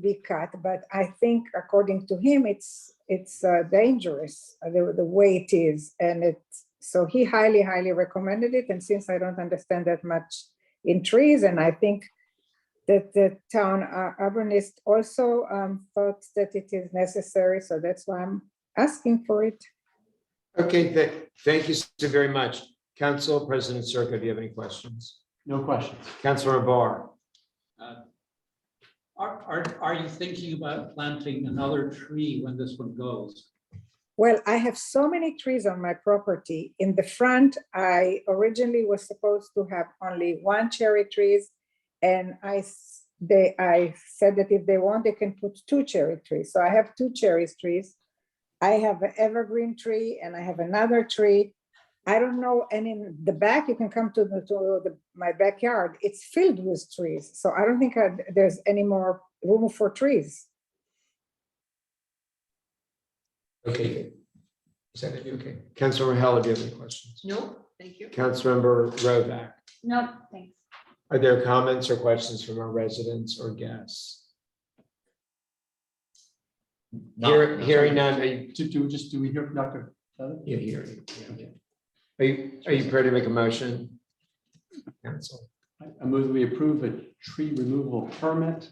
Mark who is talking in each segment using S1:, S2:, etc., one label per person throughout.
S1: be cut, but I think according to him, it's, it's uh, dangerous, uh, the, the way it is. And it, so he highly, highly recommended it. And since I don't understand that much in trees, and I think that the town uh, arborist also um, thought that it is necessary, so that's why I'm asking for it.
S2: Okay, tha- thank you so very much. Council President Circa, do you have any questions?
S3: No questions.
S2: Councilor Barr,
S4: Are, are, are you thinking about planting another tree when this one goes?
S1: Well, I have so many trees on my property. In the front, I originally was supposed to have only one cherry trees. And I, s- they, I said that if they want, they can put two cherry trees. So I have two cherry trees. I have an evergreen tree and I have another tree. I don't know, and in the back, you can come to the, to the, my backyard, it's filled with trees. So I don't think I- there's any more room for trees.
S2: okay. Is that it? Okay. Councilor Heller, do you have any questions?
S5: No, thank you.
S2: Councilmember Rovak,
S5: No, thanks.
S2: are there comments or questions from our residents or guests? Hear- Hearing none, are you,
S3: Do, do, we just, do we hear from Dr. Feather?
S2: you're hearing, yeah, yeah. Are you, are you prepared to make a motion? Council,
S3: I- I move that we approve a tree removal permit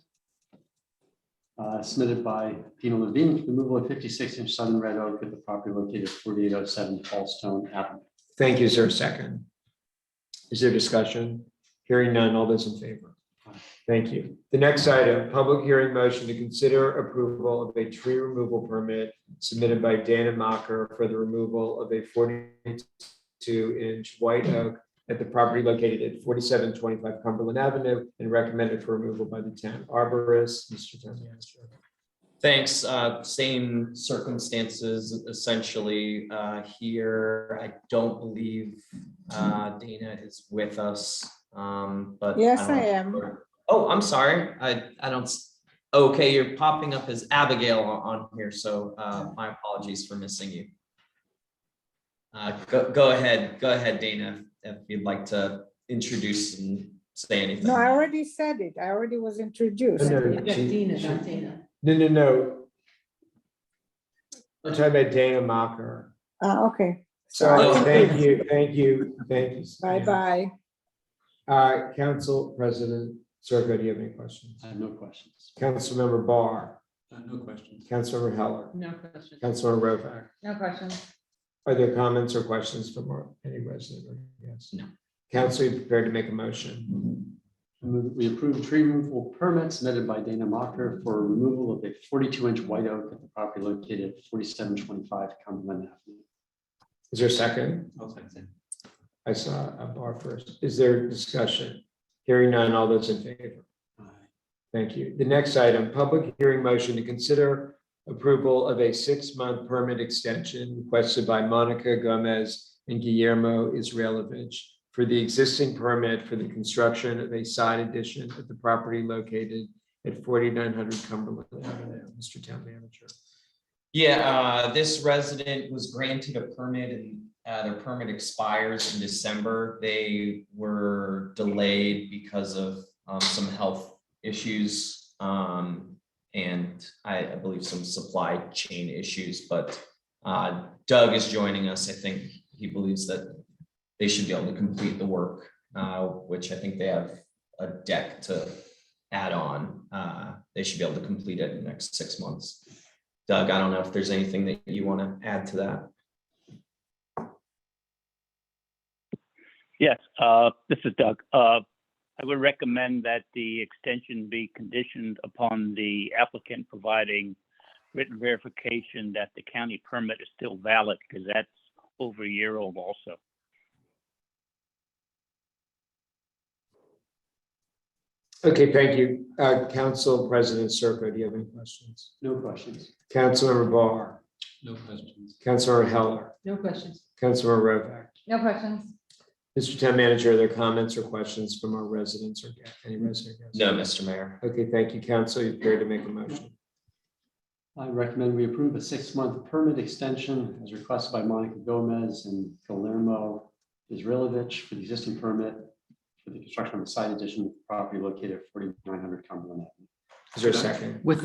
S3: uh, submitted by Pino Levine, for removal of fifty-six inch southern red oak at the property located at forty-eight oh seven Fallstone Avenue.
S2: thank you, Is there a second. Is there discussion? Hearing none, all those in favor? Thank you. The next item, public hearing motion to consider approval of a tree removal permit submitted by Dana Mocker for the removal of a forty-two inch white oak at the property located at forty-seven twenty-five Cumberland Avenue and recommended for removal by the town arborist, Mr. Town Manager.
S6: Thanks, uh, same circumstances essentially, uh, here, I don't believe, uh, Dana is with us, um, but.
S1: Yes,
S6: don't-
S1: I am.
S6: Oh, I'm sorry, I, I don't, s- okay, you're popping up as Abigail on here, so, uh, my apologies for missing you. Uh, go, go ahead, go ahead, Dana, if you'd like to introduce and say anything.
S1: No, I already said it. I already was introduced.
S2: No, no, she- she- No, no, no. We're talking about Dana Mocker.
S1: Ah, okay.
S2: Sorry,
S6: Oh.
S2: thank you, thank you, thank you. Stan.
S1: Bye-bye.
S2: Uh, Council President Circa, do you have any questions?
S3: I have no questions.
S2: Councilmember Barr,
S4: Uh, No questions.
S2: Councilmember Heller,
S5: No questions.
S2: Councilor Rovak.
S5: No questions.
S2: Are there comments or questions from our- any resident or guest?
S6: No.
S2: Council, you prepared to make a motion?
S3: I move that We approve tree removal permit submitted by Dana Mocker for removal of a forty-two inch white oak at the property located at forty-seven twenty-five Cumberland Avenue.
S2: Is there a second?
S4: I'll second.
S2: I saw a bar first. Is there discussion? Hearing none, all those in favor? Thank you. The next item, public hearing motion to consider approval of a six-month permit extension requested by Monica Gomez and Guillermo Israelovich for the existing permit for the construction of a side addition at the property located at forty-nine hundred Cumberland Avenue. Mr. Town Manager.
S6: Yeah, uh, this resident was granted a permit and, uh, their permit expires in December. They were delayed because of, um, some health issues. Um, and I, I believe some supply chain issues, but, uh, Doug is joining us. I think he believes that they should be able to complete the work, uh, which I think they have a deck to add on. Uh, they should be able to complete it in the next six months. Doug, I don't know if there's anything that you want to add to that.
S7: Yes, uh, this is Doug. Uh, I would recommend that the extension be conditioned upon the applicant providing written verification that the county permit is still valid, because that's over a year old also.
S2: Okay, thank you. Uh, Council President Circo, do you have any questions?
S3: No questions.
S2: Councilmember Barr,
S4: No questions.
S2: Councilor Heller,
S5: No questions.
S2: Councilor Rovak.
S5: No questions.
S2: Mr. Town Manager, are there comments or questions from our residents or guests? any resident? guests?
S6: No, Mr. Mayor.
S2: Okay, thank you, Council. You prepared to make a motion?
S3: I recommend we approve a six-month permit extension as requested by Monica Gomez and Guillermo Israelovich for the existing permit for the construction of a side addition to the property located at forty-nine hundred Cumberland Avenue.
S2: Is there a second?
S8: With